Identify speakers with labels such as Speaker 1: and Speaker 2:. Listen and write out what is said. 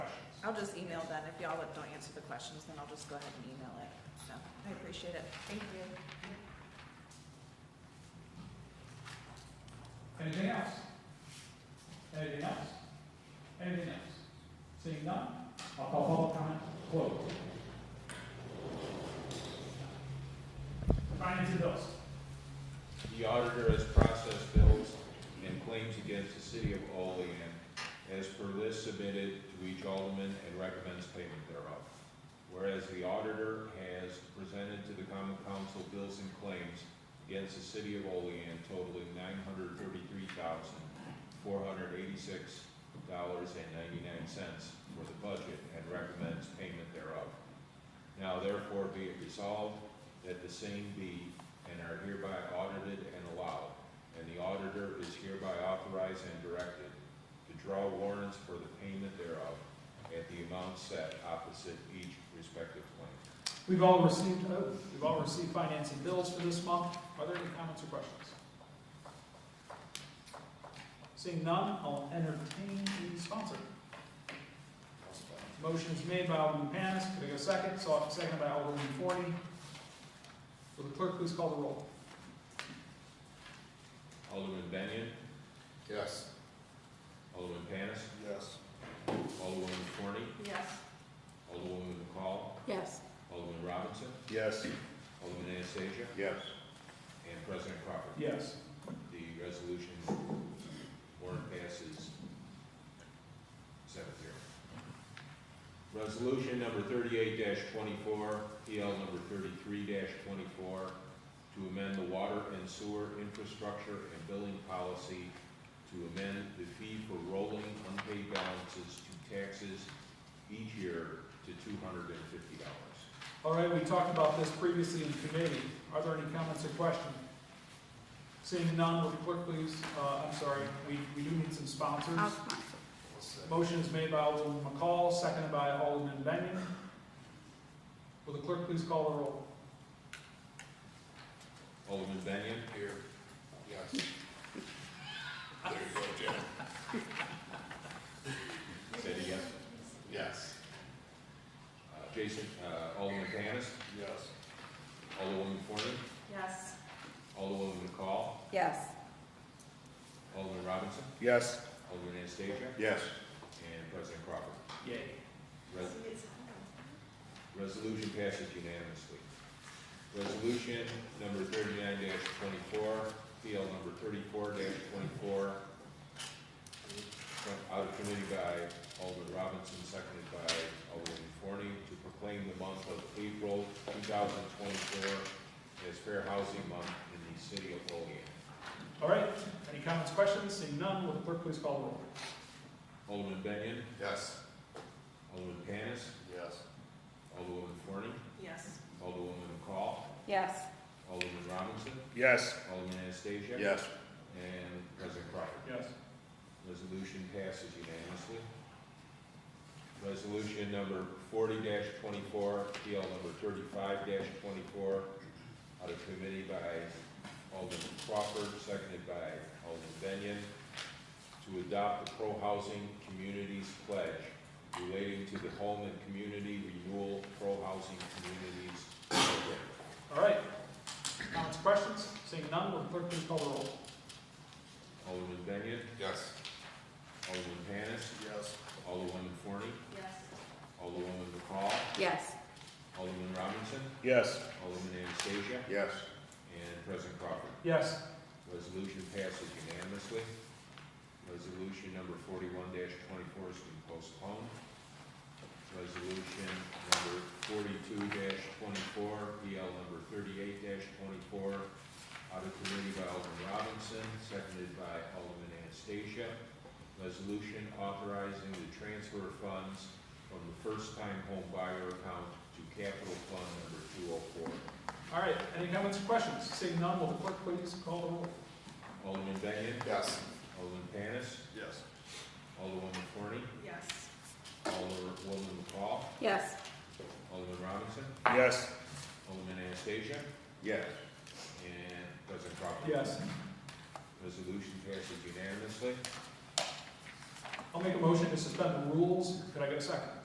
Speaker 1: I'll just email then, if y'all don't answer the questions, then I'll just go ahead and email it, so, I appreciate it, thank you.
Speaker 2: Anything else? Anything else? Anything else? Seeing none, I'll call public comment closed. Finance and bills.
Speaker 3: The auditor has processed bills and claims against the city of Olean as per list submitted to each alderman and recommends payment thereof. Whereas the auditor has presented to the common council bills and claims against the city of Olean totaling nine hundred thirty-three thousand, four hundred eighty-six dollars and ninety-nine cents for the budget and recommends payment thereof. Now therefore be it resolved that the same be and are hereby audited and allowed, and the auditor is hereby authorized and directed to draw warrants for the payment thereof at the amount set opposite each respective claim.
Speaker 2: We've all received, oh, we've all received finance and bills for this month. Are there any comments or questions? Seeing none, I'll entertain the sponsor. Motion is made by Alderman Panis, could I get a second? So- Seconded by Alderman Forney. Will the clerk please call the roll?
Speaker 3: Alderman Benyon,
Speaker 4: Yes.
Speaker 3: Alderman Panis,
Speaker 4: Yes.
Speaker 3: Alderwoman Forney,
Speaker 1: Yes.
Speaker 3: Alderwoman McCall,
Speaker 5: Yes.
Speaker 3: Alderman Robinson,
Speaker 4: Yes.
Speaker 3: Alderman Anastasia,
Speaker 4: Yes.
Speaker 3: and President Crawford.
Speaker 2: Yes.
Speaker 3: The resolution warrant passes seven zero. Resolution number thirty-eight twenty-four, PL number thirty-three twenty-four, to amend the water and sewer infrastructure and billing policy to amend the fee for rolling unpaid balances to taxes each year to two hundred and fifty dollars.
Speaker 2: All right, we talked about this previously in committee. Are there any comments or questions? Seeing none, will the clerk please, uh, I'm sorry, we, we do need some sponsors.
Speaker 5: I'll sponsor.
Speaker 2: Motion is made by Alderman McCall, seconded by Alderman Benyon. Will the clerk please call the roll?
Speaker 3: Alderman Benyon?
Speaker 4: Here. Yes. There you go, Jim.
Speaker 3: Said yes.
Speaker 4: Yes.
Speaker 3: Uh, Jason, uh, Alderman Panis?
Speaker 4: Yes.
Speaker 3: Alderwoman Forney?
Speaker 1: Yes.
Speaker 3: Alderwoman McCall?
Speaker 5: Yes.
Speaker 3: Alderman Robinson?
Speaker 4: Yes.
Speaker 3: Alderman Anastasia?
Speaker 4: Yes.
Speaker 3: And President Crawford.
Speaker 2: Yay.
Speaker 3: Res- Resolution passes unanimously. Resolution number thirty-nine twenty-four, PL number thirty-four twenty-four, out of committee by Alderman Robinson, seconded by Alderman Forney, to proclaim the month of April two thousand twenty-four as Fair Housing Month in the city of Olean.
Speaker 2: All right, any comments, questions? Seeing none, will the clerk please call the roll?
Speaker 3: Alderman Benyon,
Speaker 4: Yes.
Speaker 3: Alderman Panis,
Speaker 4: Yes.
Speaker 3: Alderwoman Forney,
Speaker 1: Yes.
Speaker 3: Alderwoman McCall,
Speaker 5: Yes.
Speaker 3: Alderman Robinson,
Speaker 4: Yes.
Speaker 3: Alderman Anastasia.
Speaker 4: Yes.
Speaker 3: And President Crawford.
Speaker 2: Yes.
Speaker 3: Resolution passes unanimously. Resolution number forty twenty-four, PL number thirty-five twenty-four, out of committee by Alderman Crawford, seconded by Alderman Benyon, to adopt the pro-housing communities pledge relating to the home and community renewal pro-housing communities program.
Speaker 2: All right, comments, questions? Seeing none, will the clerk please call the roll?
Speaker 3: Alderman Benyon,
Speaker 4: Yes.
Speaker 3: Alderman Panis,
Speaker 4: Yes.
Speaker 3: Alderwoman Forney,
Speaker 1: Yes.
Speaker 3: Alderwoman McCall,
Speaker 5: Yes.
Speaker 3: Alderman Robinson,
Speaker 4: Yes.
Speaker 3: Alderman Anastasia,
Speaker 4: Yes.
Speaker 3: and President Crawford.
Speaker 2: Yes.
Speaker 3: Resolution passes unanimously. Resolution number forty-one twenty-four has been postponed. Resolution number forty-two twenty-four, PL number thirty-eight twenty-four, out of committee by Alderman Robinson, seconded by Alderman Anastasia. Resolution authorizing the transfer of funds from the first-time home buyer account to capital fund number two oh four.
Speaker 2: All right, any comments or questions? Seeing none, will the clerk please call the roll?
Speaker 3: Alderman Benyon?
Speaker 4: Yes.
Speaker 3: Alderman Panis?
Speaker 4: Yes.
Speaker 3: Alderwoman Forney,
Speaker 1: Yes.
Speaker 3: Alderwoman McCall,
Speaker 5: Yes.
Speaker 3: Alderman Robinson,
Speaker 4: Yes.
Speaker 3: Alderman Anastasia,
Speaker 4: Yes.
Speaker 3: and President Crawford.
Speaker 2: Yes.
Speaker 3: Resolution passes unanimously.
Speaker 2: I'll make a motion to suspend the rules. Could I get a second?